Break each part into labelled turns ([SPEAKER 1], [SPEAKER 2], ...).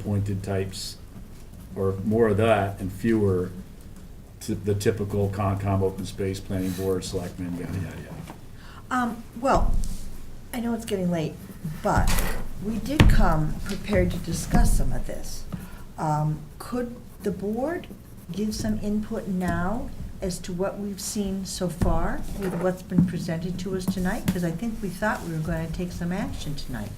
[SPEAKER 1] appointed types, or more of that and fewer t- the typical Concom, open space, planning board, selectmen, yada, yada, yada.
[SPEAKER 2] Um, well, I know it's getting late, but we did come prepared to discuss some of this. Um, could the board give some input now as to what we've seen so far with what's been presented to us tonight? Because I think we thought we were going to take some action tonight.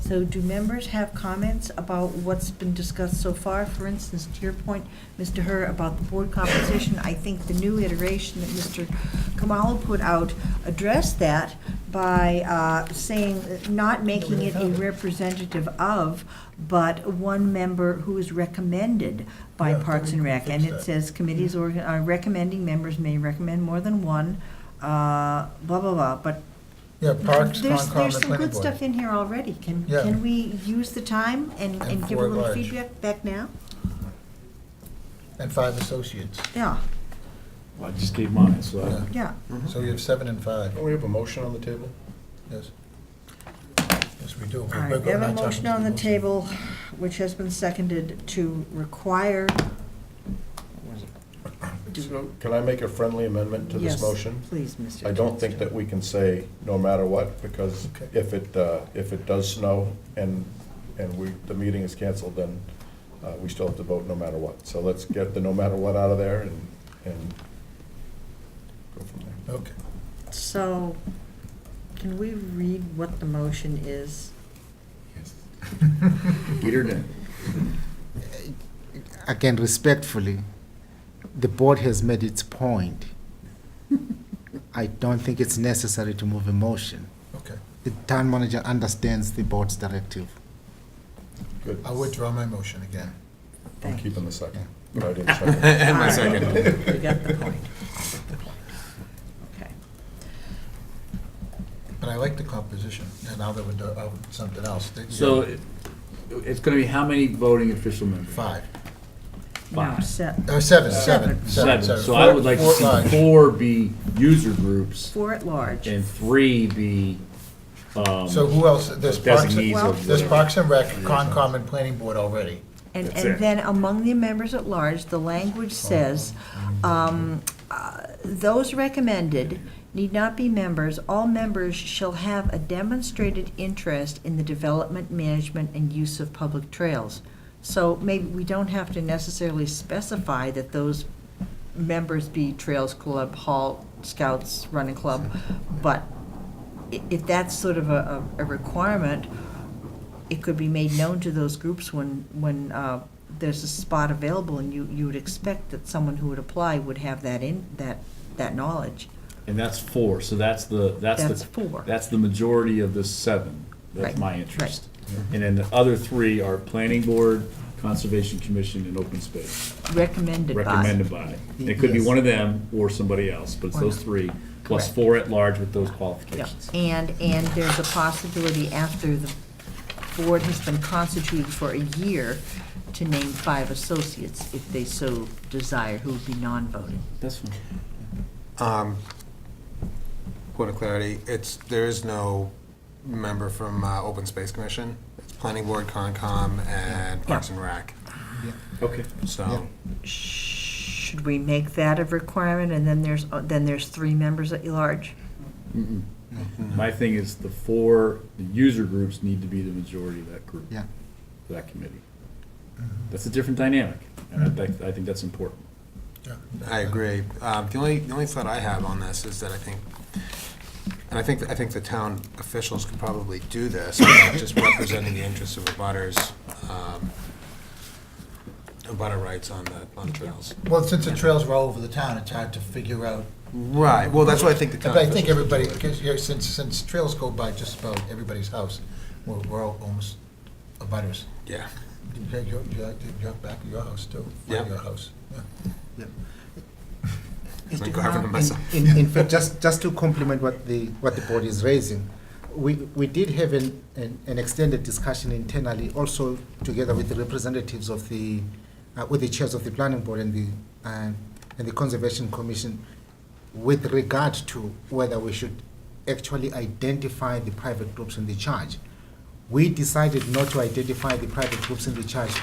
[SPEAKER 2] So do members have comments about what's been discussed so far? For instance, to your point, Mr. Herr, about the board composition, I think the new iteration that Mr. Kamalo put out addressed that by uh, saying, not making it a representative of, but one member who is recommended by
[SPEAKER 3] Yeah,
[SPEAKER 2] Parks and Rec. And it says committees or uh, recommending members may recommend more than one, uh, blah, blah, blah. But
[SPEAKER 3] Yeah, Parks,
[SPEAKER 2] there's,
[SPEAKER 3] Concom,
[SPEAKER 2] there's
[SPEAKER 3] and
[SPEAKER 2] some
[SPEAKER 3] Planning
[SPEAKER 2] good stuff
[SPEAKER 3] Board.
[SPEAKER 2] in here already. Can,
[SPEAKER 3] Yeah.
[SPEAKER 2] can we use the time and,
[SPEAKER 3] And
[SPEAKER 2] and give a
[SPEAKER 3] four
[SPEAKER 2] little
[SPEAKER 3] large.
[SPEAKER 2] feedback back now?
[SPEAKER 3] And five associates.
[SPEAKER 2] Yeah,
[SPEAKER 1] Well, I just gave mine, so I-
[SPEAKER 2] yeah.
[SPEAKER 3] So you have seven and five,
[SPEAKER 2] Oh,
[SPEAKER 4] Don't we have a motion on the table?
[SPEAKER 3] yes. Yes, we do.
[SPEAKER 2] All right, we have a motion on the table, which has been seconded to require,
[SPEAKER 4] So Can I make a friendly amendment to
[SPEAKER 2] yes,
[SPEAKER 4] this motion?
[SPEAKER 2] please, Mr.
[SPEAKER 4] I don't think that we can say no matter what, because
[SPEAKER 3] Okay.
[SPEAKER 4] if it, uh, if it does snow and, and we, the meeting is canceled, then uh, we still have to vote no matter what. So let's get the no matter what out of there and, and go from there.
[SPEAKER 3] Okay,
[SPEAKER 2] So, can we read what the motion is?
[SPEAKER 1] Peter didn't.
[SPEAKER 5] again respectfully, the board has made its point. I don't think it's necessary to move a motion.
[SPEAKER 3] okay.
[SPEAKER 5] The town manager understands the board's directive.
[SPEAKER 4] Good.
[SPEAKER 3] I withdraw my motion again.
[SPEAKER 4] I'm
[SPEAKER 2] Thank you.
[SPEAKER 4] keeping the second. But I didn't second.
[SPEAKER 2] And my second. You got the point. Okay.
[SPEAKER 3] But I like the composition, and now that we're do- oh, something else. that-
[SPEAKER 1] So it- it's gonna be how many voting official members?
[SPEAKER 3] Five,
[SPEAKER 2] Now,
[SPEAKER 1] Five.
[SPEAKER 2] set,
[SPEAKER 3] oh, seven, seven,
[SPEAKER 1] Seven,
[SPEAKER 3] seven, seven.
[SPEAKER 1] so I would like to
[SPEAKER 3] Four- four
[SPEAKER 1] see
[SPEAKER 3] large.
[SPEAKER 1] four be user groups
[SPEAKER 2] four at large.
[SPEAKER 1] and three be, um,
[SPEAKER 3] So who else, there's Parks,
[SPEAKER 1] Designees
[SPEAKER 2] Well-
[SPEAKER 1] of
[SPEAKER 3] there's Parks and Rec, Concom, and Planning Board already.
[SPEAKER 2] And,
[SPEAKER 1] That's it.
[SPEAKER 2] and then among the members at large, the language says, um, uh, those recommended need not be members. All members shall have a demonstrated interest in the development, management, and use of public trails. So maybe we don't have to necessarily specify that those members be Trails Club, Hall, Scouts, Running Club, but i- if that's sort of a, a a requirement, it could be made known to those groups when, when uh, there's a spot available, and you, you would expect that someone who would apply would have that in, that, that knowledge.
[SPEAKER 1] and that's four, so that's the, that's the.
[SPEAKER 2] That's four.
[SPEAKER 1] That's the majority of the seven.
[SPEAKER 2] Right,
[SPEAKER 1] That's my interest. And then the other three are planning board, conservation commission, and open space,
[SPEAKER 2] Recommended by.
[SPEAKER 1] recommended by. And It could be
[SPEAKER 5] Yes.
[SPEAKER 1] one of them or somebody else, but it's
[SPEAKER 2] Or
[SPEAKER 1] those
[SPEAKER 2] not.
[SPEAKER 1] three, plus
[SPEAKER 2] Correct.
[SPEAKER 1] four at large with those
[SPEAKER 2] Yeah,
[SPEAKER 1] qualifications.
[SPEAKER 2] and, and there's a possibility after the board has been constituted for a year to name five associates if they so desire, who would be non-voting.
[SPEAKER 1] That's fine.
[SPEAKER 6] Um, Point of clarity, it's, there is no member from uh, Open Space Commission. It's Planning Board, Concom, and Parks and Rec,
[SPEAKER 1] Okay.
[SPEAKER 6] so.
[SPEAKER 2] Should we make that a requirement, and then there's, uh, then there's three members at large?
[SPEAKER 1] My thing is the four, the user groups need to be the majority of that group,
[SPEAKER 5] Yeah.
[SPEAKER 1] that committee. That's a different dynamic, and I think, I think that's important.
[SPEAKER 3] Yeah.
[SPEAKER 6] I agree. Um, The only, the only thought I have on this is that I think, and I think, I think the town officials could probably do this, but just representing the interests of the butters, um, butter rights on the, on the trails.
[SPEAKER 3] Well, since the trails were all over the town, it's hard to figure out
[SPEAKER 6] Right, well, that's what I think the town
[SPEAKER 3] But I
[SPEAKER 6] officials.
[SPEAKER 3] think
[SPEAKER 6] should
[SPEAKER 3] everybody,
[SPEAKER 6] do it.
[SPEAKER 3] because, you know, since, since trails go by just about everybody's house, we're, we're all almost abutters.
[SPEAKER 6] Yeah.
[SPEAKER 3] You're, you're, you're back at your house too,
[SPEAKER 6] Yeah.
[SPEAKER 3] your house. yeah.
[SPEAKER 6] Mr.
[SPEAKER 5] In-
[SPEAKER 6] Garvin, myself.
[SPEAKER 5] In, in fact, just, just to complement what the, what the board is raising, we, we did have an, an an extended discussion internally, also together with the representatives of the, uh, with the chairs of the planning board and the, um, and the conservation commission, with regard to whether we should actually identify the private groups in the charge We decided not to identify the private groups in the charge